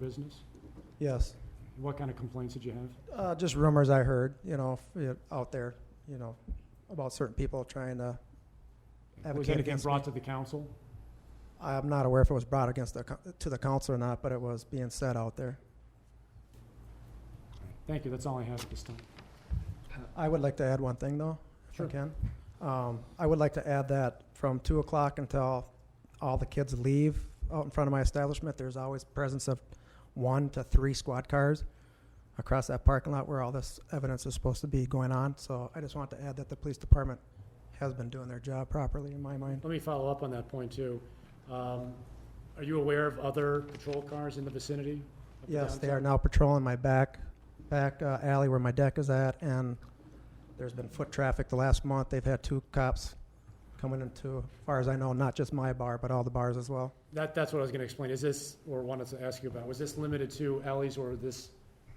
business? Yes. What kind of complaints did you have? Uh, just rumors I heard, you know, f- you know, out there, you know, about certain people trying to Was advocate anything against. brought to the council? I'm not aware if it was brought against the, co- to the council or not, but it was being said out there. Thank you, that's all I have at this time. I would like to add one thing though, if I Sure. can. Um, I would like to add that from two o'clock until all the kids leave out in front of my establishment, there's always presence of one to three squad cars across that parking lot where all this evidence is supposed to be going on. So I just want to add that the police department has been doing their job properly in my mind. Let me follow up on that point, too. Um, Are you aware of other patrol cars in the vicinity? of the Yes, they are downtown? now patrolling my back, back uh, alley where my deck is at, and there's been foot traffic the last month. They've had two cops coming into, as far as I know, not just my bar, but all the bars as well. That, that's what I was going to explain. Is this, or wanted to ask you about, was this limited to alleys or this,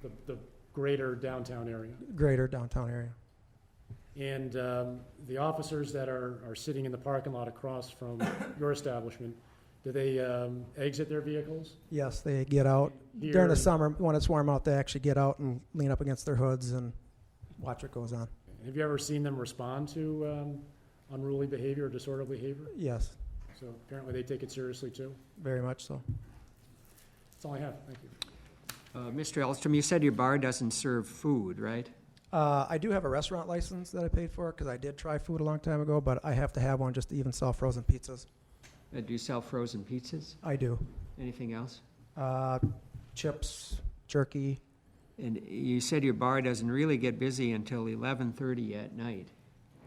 the, the greater downtown area? Greater downtown area. And um, the officers that are, are sitting in the parking lot across from your establishment, do they um, exit their vehicles? Yes, they get out Here during the and- summer when it's warm out. They actually get out and lean up against their hoods and watch what goes on. Have you ever seen them respond to um, unruly behavior or disorderly behavior? Yes, So apparently they take it seriously, too. very much so. That's all I have. Thank you. Uh, Mr. Elstrom, you said your bar doesn't serve food, right? Uh, I do have a restaurant license that I paid for because I did try food a long time ago, but I have to have one just to even sell frozen pizzas. Uh, Do you sell frozen pizzas? I do. Anything else? uh, chips, jerky. And you said your bar doesn't really get busy until 11:30 at night,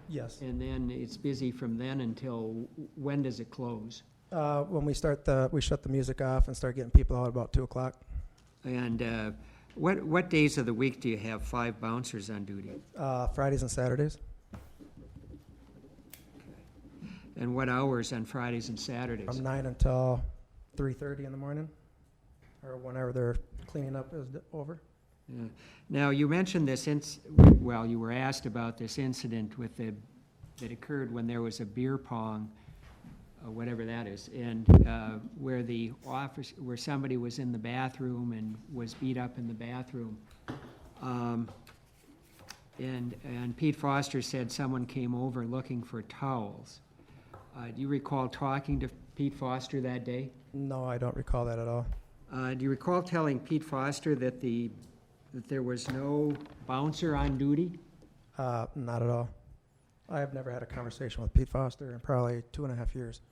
Yes. and then it's busy from then until, when does it close? Uh, when we start the, we shut the music off and start getting people out about two o'clock. And uh, what, what days of the week do you have five bouncers on duty? Uh, Fridays and Saturdays. And what hours on Fridays and Saturdays? From nine until three thirty in the morning, or whenever they're cleaning up is over. Yeah. Now, you mentioned this inc, well, you were asked about this incident with the, that occurred when there was a beer pong, uh, whatever that is, and uh, where the office, where somebody was in the bathroom and was beat up in the bathroom. Um, And, and Pete Foster said someone came over looking for towels. Uh, Do you recall talking to Pete Foster that day? No, I don't recall that at all. Uh, Do you recall telling Pete Foster that the, that there was no bouncer on duty? Uh, not at all. I have never had a conversation with Pete Foster in probably two and a half years.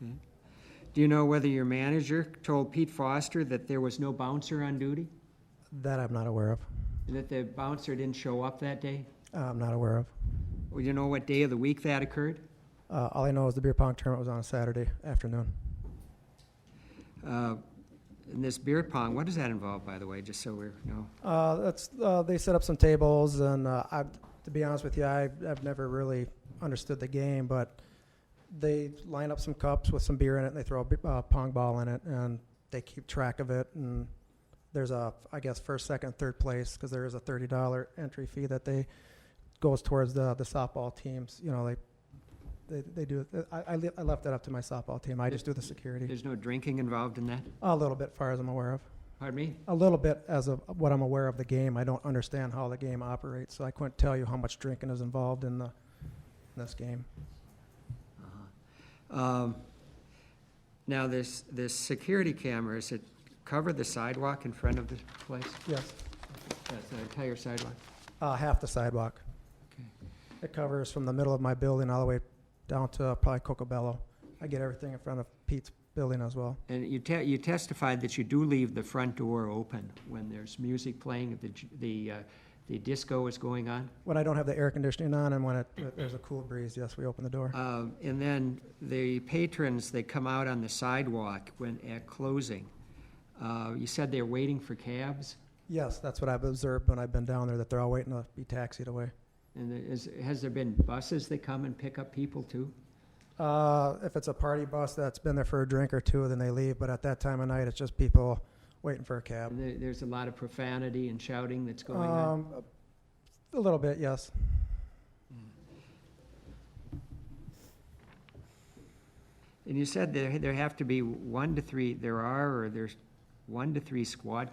Do you know whether your manager told Pete Foster that there was no bouncer on duty? That I'm not aware of. That the bouncer didn't show up that day? I'm not aware of. Or do you know what day of the week that occurred? Uh, all I know is the beer pong tournament was on a Saturday afternoon. Uh, And this beer pong, what does that involve, by the way, just so we're, no? Uh, that's uh, they set up some tables, and uh, I, to be honest with you, I, I've never really understood the game, but they line up some cups with some beer in it, and they throw a b- uh, pong ball in it, and they keep track of it. And there's a, I guess, first, second, third place because there is a thirty dollar entry fee that they goes towards the the softball teams. You know, they they, they do. I, I, le- I left that up to my softball team. I just do the security There's no drinking involved in that? a little bit, far as I'm aware of. Pardon me? A little bit as of what I'm aware of the game. I don't understand how the game operates, so I couldn't tell you how much drinking is involved in the in this game. Um, Now, there's, there's security cameras that cover the sidewalk in front of the place? Yes, That's the entire sidewalk? uh, half the sidewalk. Okay. It covers from the middle of my building all the way down to uh, probably Cocobello. I get everything in front of Pete's building as well. And you te- you testified that you do leave the front door open when there's music playing, if the, j- the, uh, the disco is going on? When I don't have the air conditioning on and when it, there's a cool breeze, yes, we open the door. Uh, And then the patrons, they come out on the sidewalk when, at closing. Uh, You said they're waiting for cabs? Yes, that's what I've observed when I've been down there that they're all waiting to be taxied away. And there is, has there been buses that come and pick up people too? Uh, if it's a party bus that's been there for a drink or two, then they leave. But at that time of night, it's just people waiting for a cab. And there- There's a lot of profanity and shouting that's going on? Um, A little bit, yes. And you said there, there have to be one to three, there are, or there's one to three squad